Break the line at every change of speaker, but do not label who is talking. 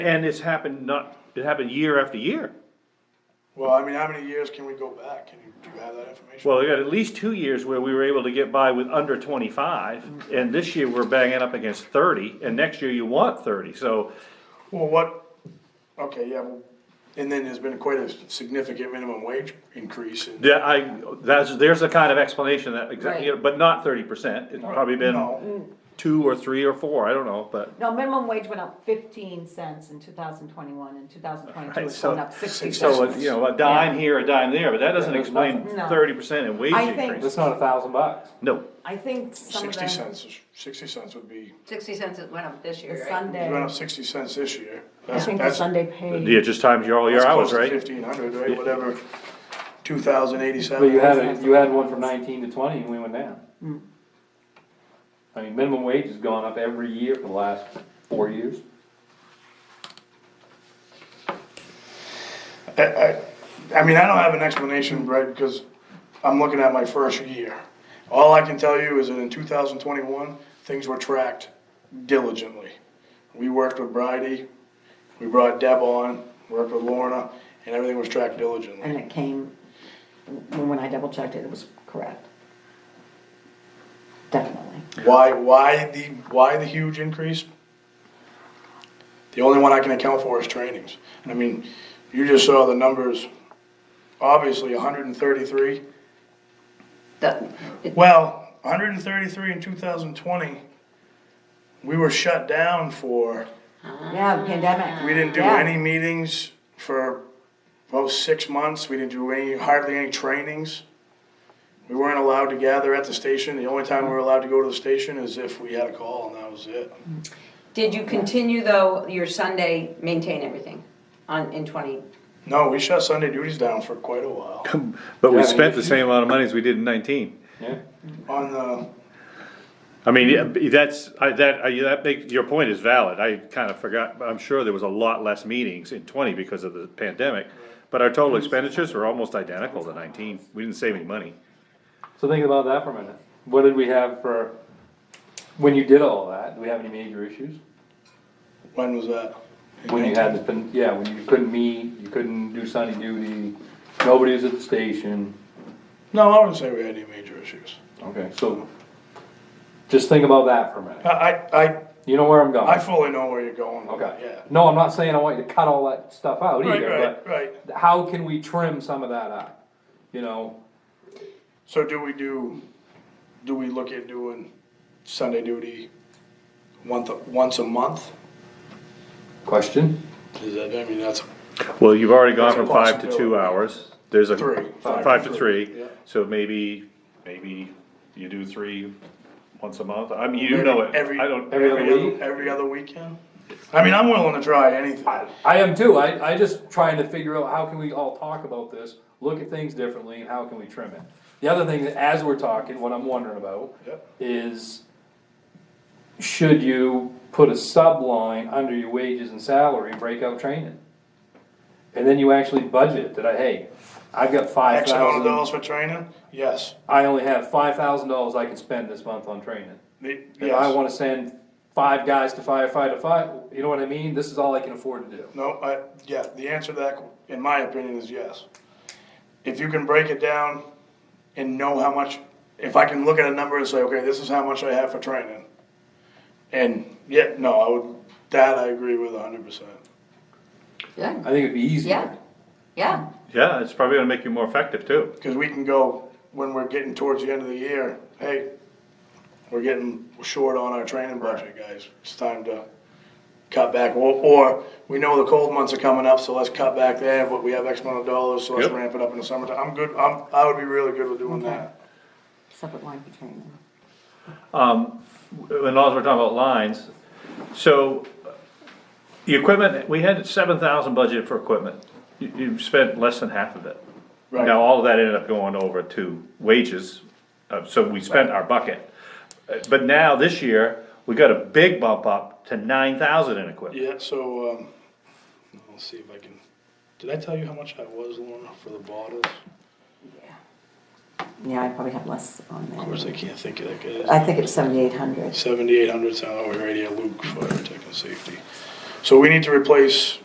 And it's happened not, it happened year after year.
Well, I mean, how many years can we go back? Can you, do you have that information?
Well, we got at least two years where we were able to get by with under twenty-five, and this year we're banging up against thirty, and next year you want thirty, so
Well, what, okay, yeah, well, and then there's been quite a significant minimum wage increase in.
that I, that's, there's a kind of explanation that exactly,
Right.
but not thirty percent. It's probably been
Mm,
No,
two or three or four, I don't know, but,
No, minimum wage went up fifteen cents in two thousand twenty-one, and two thousand twenty-two
Right,
it's
so-
going up sixty
so,
cents.
you know, a dime here, a dime there, but that doesn't explain
nothing. No.
thirty percent in wage
I think-
increase.
It's not a thousand bucks.
No,
I think some of
sixty
the,
cents, is- sixty cents would be,
Sixty cents it went up this
the
year, right?
you went
Sunday,
up sixty cents this year.
I
That's
think the
that's-
Sunday pay,
yeah, just times your, all your
that's
hours,
close to
right?
Fifteen hundred, right, whatever, two thousand
But you
eighty-seven.
had, a- you had one from nineteen to twenty and we went down. I mean, minimum wage has gone up every year for the last four years.
I, I, I mean, I don't have an explanation, Brett, because I'm looking at my first year. All I can tell you is that in two thousand twenty-one, things were tracked diligently. We worked with Bridie, we brought Deb on, worked with Lorna, and everything was tracked diligently.
and it came, when when I double checked it, it was correct. Definitely.
Why, why the, why the huge increase? The only one I can account for is trainings. I mean, you just saw the numbers, obviously hundred and thirty-three.
That- it-
Well, 133 in 2020, we were shut down for,
Yeah, the pandemic.
we didn't do
Yeah.
any meetings for about six months. We didn't do any, hardly any trainings. We weren't allowed to gather at the station. The only time we were allowed to go to the station is if we had a call and that was it.
Did you continue though, your Sunday, maintain everything on, in twenty?
No, we shut Sunday duties down for quite a while.
But we
Yeah, I mean,
spent
if
the
you-
same amount of money as we did in nineteen.
Yeah,
On uh, the,
I mean, yeah, that's, I, that, I, that makes, your point is valid, I kinda forgot, but I'm sure there was a lot less meetings in twenty because of the pandemic. But our total expenditures were almost identical to nineteen, we didn't save any money.
so think about that for a minute. What did we have for, when you did all that, do we have any major issues?
when was that?
When you had, the yeah, when you couldn't meet, you couldn't do Sunday duty, nobody was at the station.
No, I wouldn't say we had any major issues.
Okay, so just think about that for a minute.
I, I, I-
You know where I'm going?
I fully know where you're going with that,
Okay.
yeah.
No, I'm not saying I want you to cut all that stuff out
Right,
either,
right,
but
right.
how can we trim some of that out? You know,
So do we do, do we look at doing Sunday duty once, once a month?
question?
Is that, I mean, that's,
Well, you've already gone
That's a
from five to two
possibility.
hours, there's a,
Three.
five to three,
yeah.
so maybe, maybe you do three once a month, I mean, you
Every-
know it,
every-
I don't.
every other
every,
week?
other- every other weekend? I mean, I'm willing to try anything.
I am too, I, I just trying to figure out how can we all talk about this, look at things differently, and how can we trim it? The other thing, that as we're talking, what I'm wondering about
Yep.
is, should you put a subline under your wages and salary, break out training? And then you actually budget that I, hey, I've got five
X amount
thousand.
of dollars for training? Yes.
I only have five thousand dollars I can spend this month on training.
The-
If I
Yes.
wanna send five guys to firefight a fire, you know what I mean? This is all I can afford to do.
No, I, yeah, the answer to that, in my opinion, is yes. If you can break it down and know how much, if I can look at a number and say, okay, this is how much I have for training. And, yeah, no, I would, that I agree with hundred percent.
Yeah,
I think it'd be easier.
yeah, yeah.
Yeah, it's probably gonna make you more effective too.
Cause we can go, when we're getting towards the end of the year, hey, we're getting short on our training budget, guys. It's time to cut back, or, or we know the cold months are coming up, so let's cut back there, but we have X amount of dollars, so let's
Yep.
ramp it up in the summertime. I'm good, I'm, I would be really good with doing that.
Separate line for training.
and also we're talking about lines, so uh, the equipment, we had seven thousand budgeted for equipment. You, you've spent less than half of it.
Right.
Now, all of that ended up going over to wages, uh, so we spent our bucket. Uh, But now, this year, we got a big bump up to nine thousand in equipment.
Yeah, so, um, I'll see if I can, did I tell you how much I was, Lorna, for the bottles?
Yeah, I probably had less on
Of
there.
course, I can't think of that guy's.
I think it's seventy-eight hundred.
oh, Seventy-eight hundred, sound over right here, Luke, fire protection safety. So we need to replace